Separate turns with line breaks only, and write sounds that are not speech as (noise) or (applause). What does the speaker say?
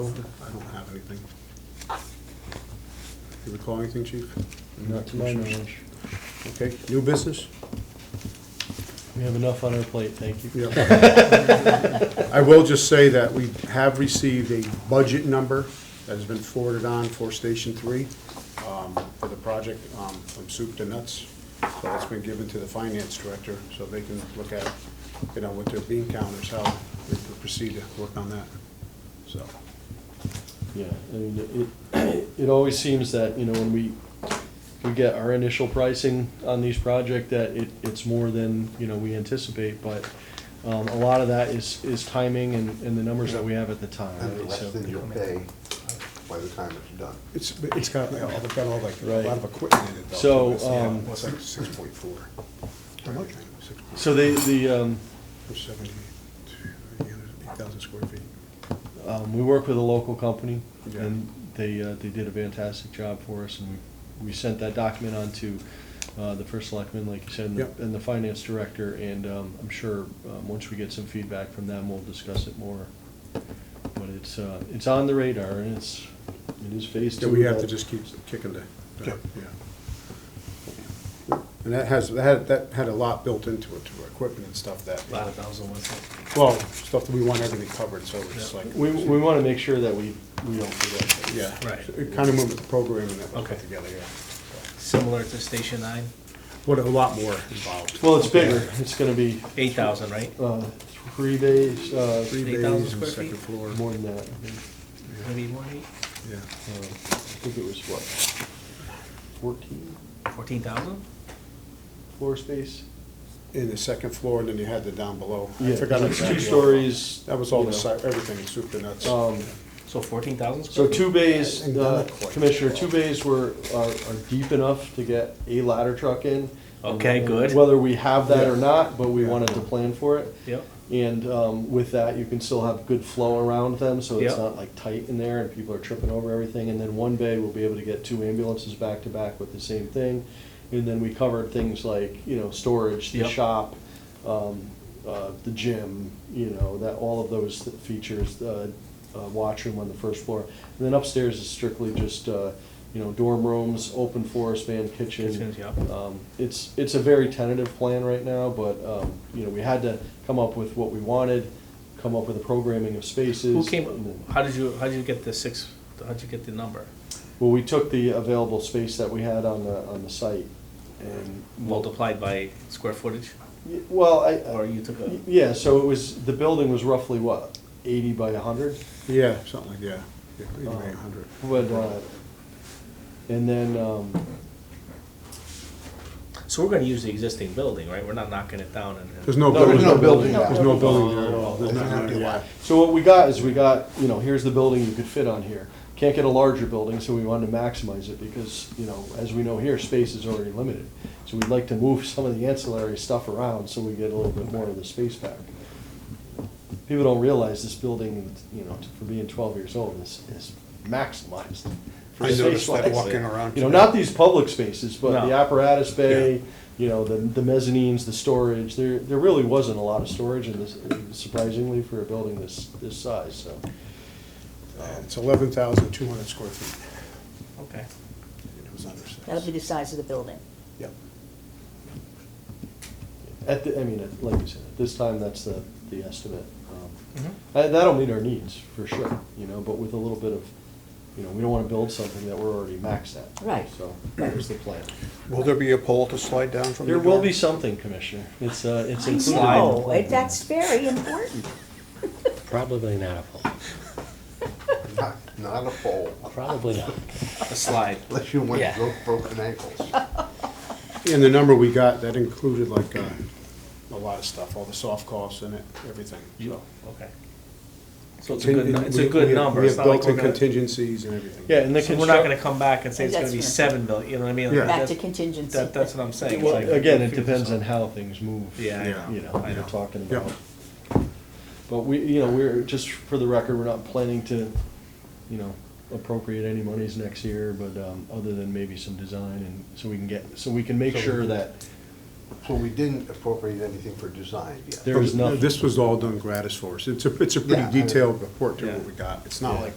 I don't have anything. You recall anything, chief?
Not to my knowledge.
Okay, new business?
We have enough on our plate, thank you.
Yeah. (laughs) I will just say that we have received a budget number that has been forwarded on for Station Three um, for the project um, from soup to nuts. So that's been given to the finance director, so they can look at, you know, what their bean counters, how they can proceed to work on that, so.
Yeah, I mean, it, it always seems that, you know, when we, we get our initial pricing on these project, that it, it's more than, you know, we anticipate, but, um, a lot of that is, is timing and, and the numbers that we have at the time.
And the
right?
rest
So-
then you'll pay by the time it's done.
It's, it's got, it's got all like, a
Right.
lot of equipment in it though.
So,
It's, yeah,
um,
It's like six point four. How much? Six point
So they, the, um,
four, seventy, eight thousand square feet.
Um, we work with a local company,
Yeah.
and they, uh, they did a fantastic job for us, and we, we sent that document on to, uh, the first selectman, like you said, and
Yep.
the- and the finance director, and, um, I'm sure, um, once we get some feedback from them, we'll discuss it more. But it's, uh, it's on the radar, and it's, it is phase two.
So we have to
but-
just keep kicking the, the- yeah. And that has, that had, that had a lot built into it, to our equipment and stuff that,
Lot of bells and whistles.
well, stuff that we want everything covered, so it's like.
We, we wanna make sure that we, we don't forget.
Yeah.
Right.
It kind of moved the programming that was put
Okay.
together, yeah.
Similar to Station Nine,
What, a lot more involved.
Well, it's bigger, it's gonna be,
eight thousand, right?
uh, three days, uh,
Three
8,000
bays and
square
second
feet?
floor,
more than that, I think.
Maybe more,
yeah.
Um, I think it was what, fourteen
fourteen thousand?
floor space?
in the second floor, and then you had the down below. I
Yeah,
forgot
it's
exactly.
Two stories.
That was all the
you know.
site, everything, soup to nuts.
Um,
So fourteen thousand square
So
feet?
two bays,
And
uh,
then the court.
Commissioner, two bays were, are, are deep enough to get a ladder truck in.
Okay, good.
Whether we have that or
Yeah.
not, but we
Yeah.
wanted to plan for it.
Yep,
And um, with that, you can still have good flow around them, so it's
Yep.
not like tight in there and people are tripping over everything. And then one bay, we'll be able to get two ambulances back to back with the same thing. And then we covered things like, you know, storage, the
Yep.
shop, um, uh, the gym, you know, that, all of those th- features, uh, uh, washroom on the first floor. And then upstairs is strictly just, uh, you know, dorm rooms, open forest van kitchen.
Kitchens, yep.
Um, It's, it's a very tentative plan right now, but, um, you know, we had to come up with what we wanted, come up with the programming of spaces.
who came,
and then-
how did you, how did you get the six, how'd you get the number?
Well, we took the available space that we had on the, on the site and.
Multiplied by square footage,
Y- Well, I. I-
or you took a,
y- Yeah, so it was, the building was roughly what, eighty by hundred?
Yeah, something like, yeah, yeah, anyway,
Um,
100.
But, uh, and then, um,
so we're gonna use the existing building, right? We're not knocking it down and.
There's no
No,
building.
there's no building.
There's no
No.
building there at all. There's
It's an
nothing
empty
there, yeah.
lot.
So what we got is we got, you know, here's the building you could fit on here. Can't get a larger building, so we wanted to maximize it because, you know, as we know here, space is already limited. So we'd like to move (laughs) some of the ancillary stuff around so we get a little bit more of the space back. People don't realize this building, you know, for being twelve years old, is, is maximized. for
I
space
noticed that
wise.
walking around
You know,
today.
not these public spaces, but the
No.
apparatus bay, you know, the, the mezzanines, the storage, there, there really wasn't a lot of storage in this, surprisingly, for a building this, this size, so.
Uh, It's 11,200 square feet.
Okay,
It was under six.
That'll be the size of the building.
Yep.
At the, I mean, at- like you said, at this time, that's the, the estimate. Um,
Mhm.
I- That'll meet our needs, for sure, you know, but with a little bit of, you know, we don't wanna build something that we're already maxed at.
Right.
So, that was the plan.
Will there be a pole to slide down from the
There will
door?
be something, Commissioner, it's, uh, it's
I
included.
know, it- that's very important.
Probably not a pole.
Not- Not a pole,
Probably not.
a slide.
unless you went
Yeah.
broke broken ankles.
And the number we got, that included like uh, a lot of stuff, all the soft costs in it, everything.
You,
so.
okay. So it's a good, nu- it's a
We- we
good
have-
number,
We
it's
have
not like
built-in
we're gonna.
contingencies and everything.
Yeah, and the
So we're not
construct-
gonna come back and say it's gonna be
Adjustment.
seven million, you know what I mean?
Yeah.
Back to
That's-
contingency.
That, that's what I'm saying.
Well,
It's like-
again, it depends on how things move.
Yeah, I
Yeah.
know.
You know,
I
you're
know.
talking
Yeah.
about. But we, you know, we're, just for the record, we're not planning to, you know, appropriate any monies next year, but, um, other than maybe some design and, so we can get, so we can make sure that
So we didn't appropriate anything for design yet.
there is nothing.
This was all done gratis for us. It's a, it's a pretty
Yeah.
detailed report to what
Yeah.
we got. It's not
Yeah.
like